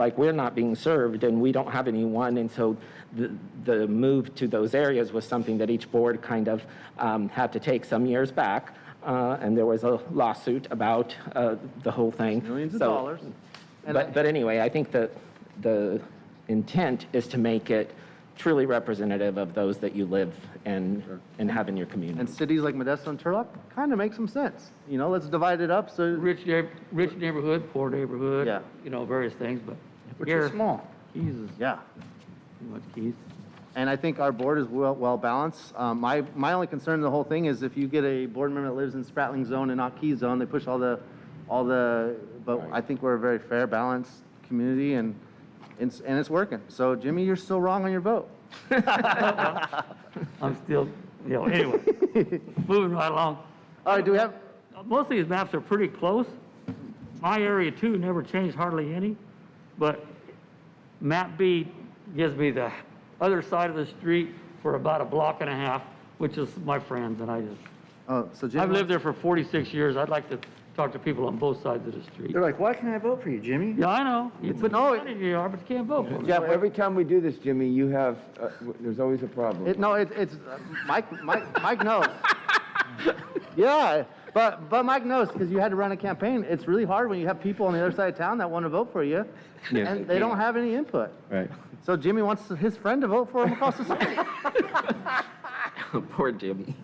like we're not being served and we don't have anyone. And so the, the move to those areas was something that each board kind of um, had to take some years back. Uh, and there was a lawsuit about uh, the whole thing. Millions of So- dollars. And I- But, but anyway, I think that the intent is to make it truly representative of those that you live and, and have in your community. And cities like Modesto and Turlock kind of make some sense. You know, let's divide it up so Rich, neigh- rich neighborhood, poor neighborhood. Yeah. You know, various things, but which here, is small. Jesus, Yeah. too much keys. And I think our board is well, well balanced. Um, my, my only concern in the whole thing is if you get a board member that lives in Spratling Zone and not Key Zone, they push all the, all the, but I think we're a very fair, balanced community and, and, and it's working. So Jimmy, you're still wrong on your vote. I'm still, you know, anyway, moving right along. All right, do we have, Most of these maps are pretty close. My area too never changed hardly any, but map B gives me the other side of the street for about a block and a half, which is my friends, and I just, oh, so Jimmy. I've lived there for 46 years. I'd like to talk to people on both sides of the street. They're like, why can't I vote for you, Jimmy? Yeah, I know. You put no, no, you are, but you can't vote for me. Jeff, every time we do this, Jimmy, you have, uh, w- there's always a problem. It, no, it, it's uh, Mike. Mike, Mike knows. yeah, but but Mike knows because you had to run a campaign. It's really hard when you have people on the other side of town that want to vote for you, Yeah. and they don't have any input. Right. So Jimmy wants his friend to vote for him across the street. Poor Jimmy.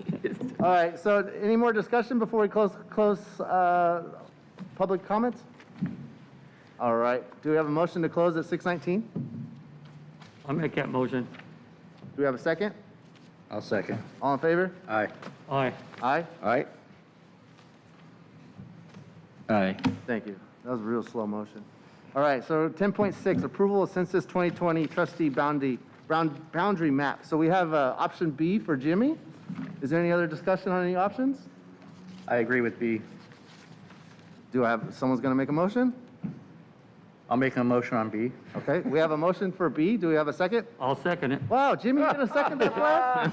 All right. So any more discussion before we close close uh, public comments? All right. Do we have a motion to close at 6:19? Do I make that motion. we have a second? I'll second. All in favor? Aye. Aye. Aye. Aye? Aye. Thank you. That was real slow motion. All right, so 10.6, approval of census 2020 trustee boundary, bound- boundary map. So we have uh, option B for Jimmy. Is there any other discussion on any options? I agree with B. Do I have, someone's going to make a motion? I'll make a motion on B. Okay, we have a motion for B. Do we have a second? I'll second it. Wow, Jimmy, you going to second that plan?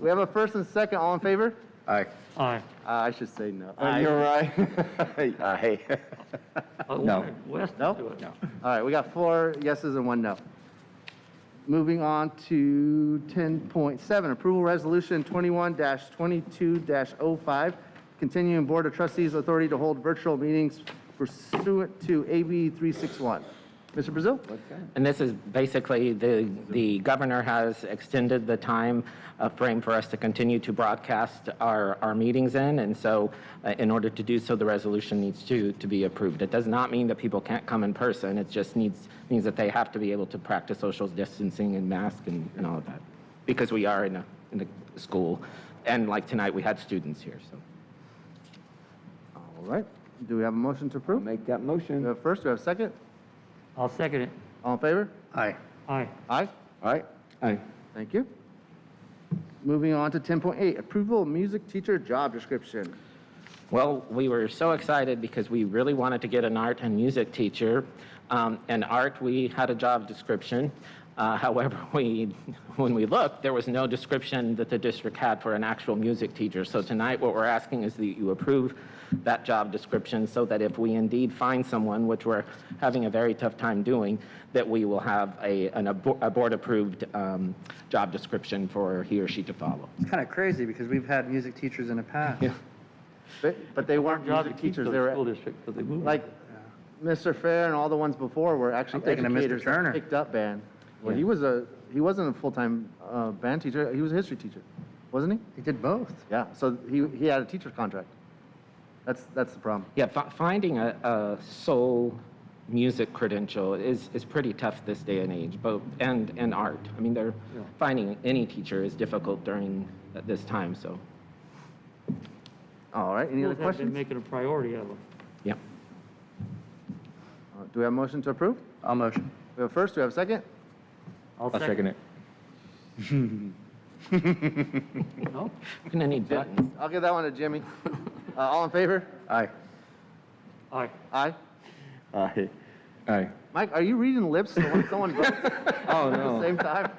We have a first and second, all in favor? Aye. Aye. Uh, I should say no. And you're right. Aye. I No. wanted West to No? do it. All right, we got four yeses and one no. Moving on to 10.7, approval resolution 21-22-05, continuing Board of Trustees authority to hold virtual meetings pursuant to AB 361. Mr. Brazil? And this is basically, the, the governor has extended the time uh, frame for us to continue to broadcast our, our meetings in, and so uh, in order to do so, the resolution needs to, to be approved. It does not mean that people can't come in person, it just needs, means that they have to be able to practice social distancing and mask and, and all of that, because we are in a, in a school, and like tonight, we had students here, so. All right, do we have a motion to approve? Make that We motion. have first, we have second? I'll second it. All in favor? Aye. Aye. Aye? Aye? Aye. Thank you. Moving on to 10.8, approval of music teacher job description. Well, we were so excited because we really wanted to get an art and music teacher. Um, and art, we had a job description. Uh, however, we, when we looked, there was no description that the district had for an actual music teacher. So tonight, what we're asking is that you approve that job description so that if we indeed find someone, which we're having a very tough time doing, that we will have a, an, abo- a board-approved um, job description for he or she to follow. It's kind of crazy because we've had music teachers in the past. But but they weren't Job music to keep teachers, those they were school district, 'cause they moved. Like Mr. Fair and all the ones before were actually I'm thinking of Mr. educators that Turner. picked up band. Well, he was a, he wasn't a full-time uh, band teacher, he was a history teacher, wasn't he? They did both. Yeah, so he, he had a teacher's contract. That's, that's the problem. Yeah, fi- finding a, a soul music credential is, is pretty tough this day and age, both, and, and art. I mean, they're, finding any teacher is difficult during uh, this time, so, All right, any other Schools have been questions? making a priority of them. yeah. Uh, Do we have a motion to approve? I'll motion. We have a first, do we have a second? I'll I'll second second it. it. No? We're gonna need buttons. I'll give that one to Jimmy. Uh, All in favor? Aye. Aye. Aye. Aye. Aye. Mike, are you reading lips to when someone votes at Oh, the no. same time?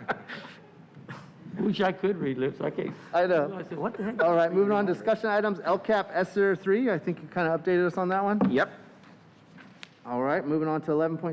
I Wish I could read lips. I can't. I know. I said, what the heck? All right, moving on, E discussion items, LCAP ESER three, I think you kind of updated us on that one. Yep. All right, moving on to eleven point